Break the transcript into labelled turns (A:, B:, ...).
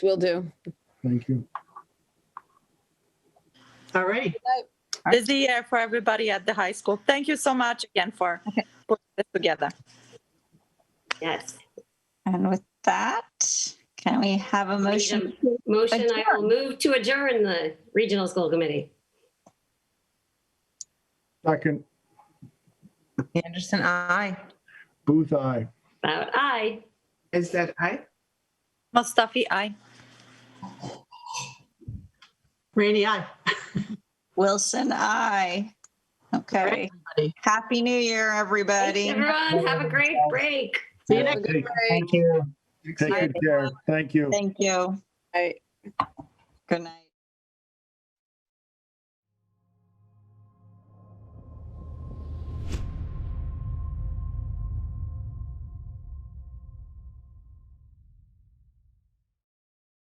A: Will do.
B: Thank you.
C: All right.
D: busy year for everybody at the high school. Thank you so much again for putting this together.
E: Yes.
F: And with that, can we have a motion?
E: Motion, I will move to adjourn the Regional School Committee.
B: Second,
C: Anderson, aye.
B: Booth, aye.
E: About aye.
C: Is that aye?
D: Mustafi, I.
C: Rainey, aye.
F: Wilson, aye. Okay. Happy New Year,
E: Thanks,
F: everybody.
E: everyone. Have a great break.
C: See you next.
B: Take
A: All
B: take good care. Thank you.
F: Thank you.
A: right.
F: Good night.